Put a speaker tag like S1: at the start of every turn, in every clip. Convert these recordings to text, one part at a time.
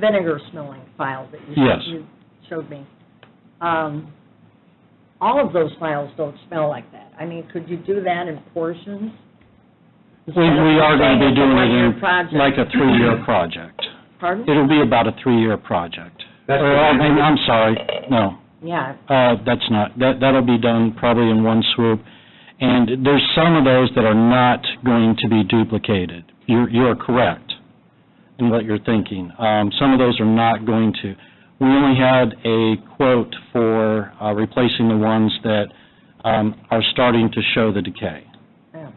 S1: vinegar smelling file that you
S2: Yes.
S1: showed- you showed me. Um, All of those files don't smell like that. I mean, could you do that in portions?
S2: We, we are going to be doing
S1: It's a
S2: it
S1: one-year project.
S2: in, like a three-year project.
S1: Pardon?
S2: It'll be about a three-year project.
S3: That's
S4: Uh,
S2: Or, I mean, I'm sorry, no,
S1: Yeah,
S2: uh, that's not, that, that'll be done probably in one swoop. And there's some of those that are not going to be duplicated. You're, you are correct in what you're thinking. Um, some of those are not going to. We only had a quote for, uh, replacing the ones that, um, are starting to show the decay.
S1: yeah.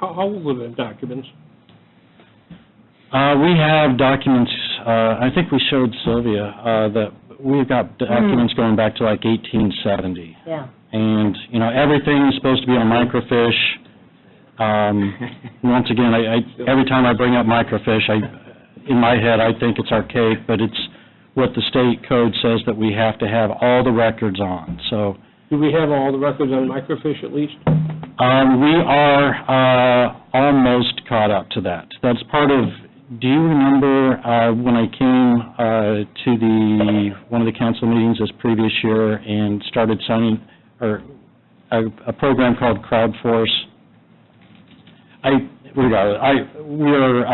S4: How, how old are the documents?
S2: Uh, we have documents, uh, I think we showed Sylvia, uh, that we've got documents going back to like eighteen seventy.
S1: yeah.
S2: And, you know, everything is supposed to be on microfiche. Um, once again, I, I, every time I bring up microfiche, I, in my head, I think it's archaic, but it's what the state code says that we have to have all the records on, so.
S4: Do we have all the records on microfiche at least?
S2: Um, we are, uh, almost caught up to that. That's part of, do you remember, uh, when I came, uh, to the, one of the council meetings this previous year and started signing, or, a, a program called CrowdForce? I, we got, it. I, we're,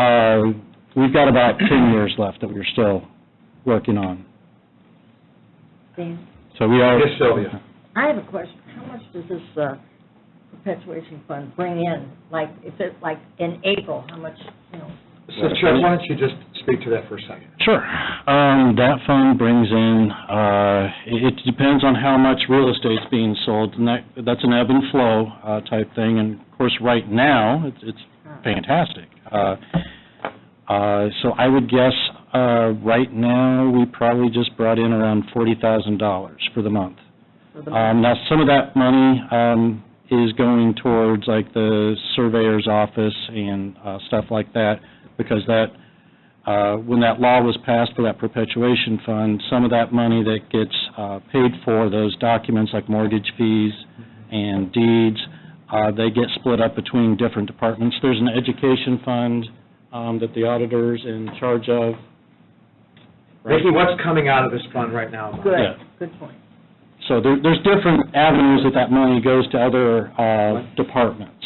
S2: uh, we've got about ten years left that we're still working on.
S1: Dan,
S2: So we are.
S3: Yes, Sylvia.
S1: I have a question. How much does this uh, perpetuation fund bring in? Like, if it, like, in April, how much, you know?
S3: So Chuck, why don't you just speak to that for a second?
S2: Sure. Um, That fund brings in, uh, it it depends on how much real estate's being sold, and that, that's an ebb and flow uh, type thing, and of course, right now, it's- it's
S1: uh,
S2: fantastic. Uh, uh, So I would guess, uh, right now, we probably just brought in around $40,000 for the month.
S1: for the
S2: Um, Now, some of that money um, is going towards like the surveyor's office and uh, stuff like that, because that, uh, when that law was passed for that perpetuation fund, some of that money that gets uh, paid for those documents like mortgage fees and deeds, uh, they get split up between different departments. There's an education fund um, that the auditor's in charge of. right?
S3: Ricky, what's coming out of this fund right now? Mark?
S1: Good,
S2: yeah.
S1: good point.
S2: So there, there's different avenues that that money goes to other, uh, departments.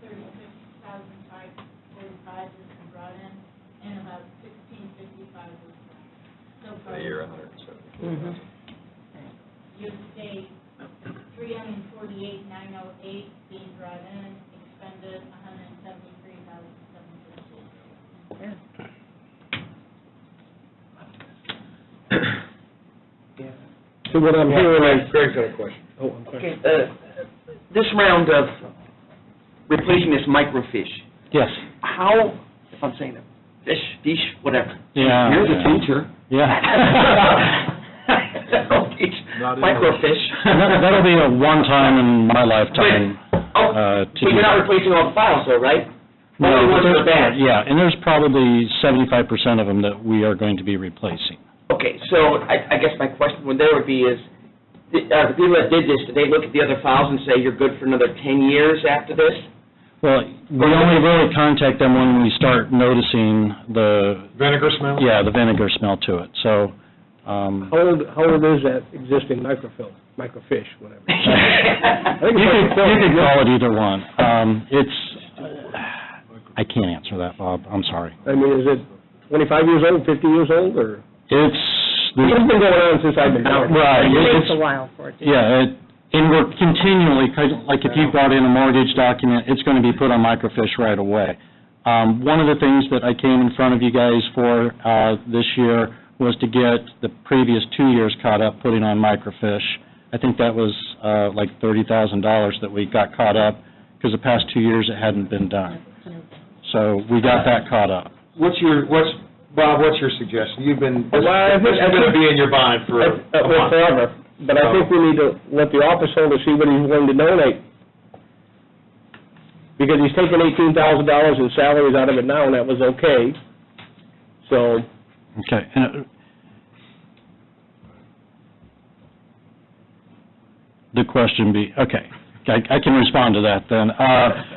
S5: thirty-six thousand five forty-five has been brought in, and about sixteen fifty-five was left. So far,
S1: Mhm.
S5: year-to-date, three hundred and forty-eight, nine oh eight being brought in, expended a hundred and seventy-three thousand, seven fifty.
S4: So what I'm hearing is,
S3: Greg's got a question.
S4: oh, I'm sorry.
S6: Okay, uh, this round of replacing this microfiche,
S2: Yes.
S6: how, if I'm saying it, fish, fish, whatever.
S2: Uh, Yeah.
S6: You're the teacher.
S2: Yeah.
S6: Don't teach
S3: Not in-
S2: That- That'll
S6: microfiche.
S2: be a one-time in my lifetime, uh,
S6: Oh,
S2: to
S6: But
S2: do
S6: you're not
S2: that.
S6: replacing all the files though, right?
S2: No,
S6: Only
S2: but
S6: ones that are
S2: there's-
S6: bad.
S2: Yeah, and there's probably seventy-five percent of them that we are going to be replacing.
S6: Okay, so I, I guess my question would there would be is, the- uh, the people that did this, did they look at the other files and say, you're good for another ten years after this?
S2: Well, we only really contact them when we start noticing the,
S3: Vinegar smell?
S2: yeah, the vinegar smell to it, so, um.
S4: How old, how old is that existing microfilm, microfiche, whatever?
S2: You could, you could call it either one. Um, it's, I can't answer that, Bob, I'm sorry.
S4: I mean, is it 25 years old, 50 years old, or?
S2: It's,
S4: It's been going on since I've been down.
S2: right,
S1: It takes a
S2: it's,
S1: while for it to.
S2: yeah, it, and we're continually, 'cause like if you brought in a mortgage document, it's gonna be put on microfiche right away. Um, one of the things that I came in front of you guys for, uh, this year was to get the previous two years caught up putting on microfiche. I think that was, uh, like thirty thousand dollars that we got caught up, because the past two years it hadn't been done. So we got that caught up.
S3: What's your, what's, Bob, what's your suggestion? You've been,
S4: Well,
S3: this
S4: I think-
S3: this is going to be in your bonnet
S4: Uh,
S3: for a
S4: well,
S3: month.
S4: Forever, but I think we need to let the office holder see what he's willing to donate. Because he's taking eighteen thousand dollars in salaries out of it now, and that was okay. So,
S2: Okay. and, uh, The question be, okay, I I can respond to that then. Uh,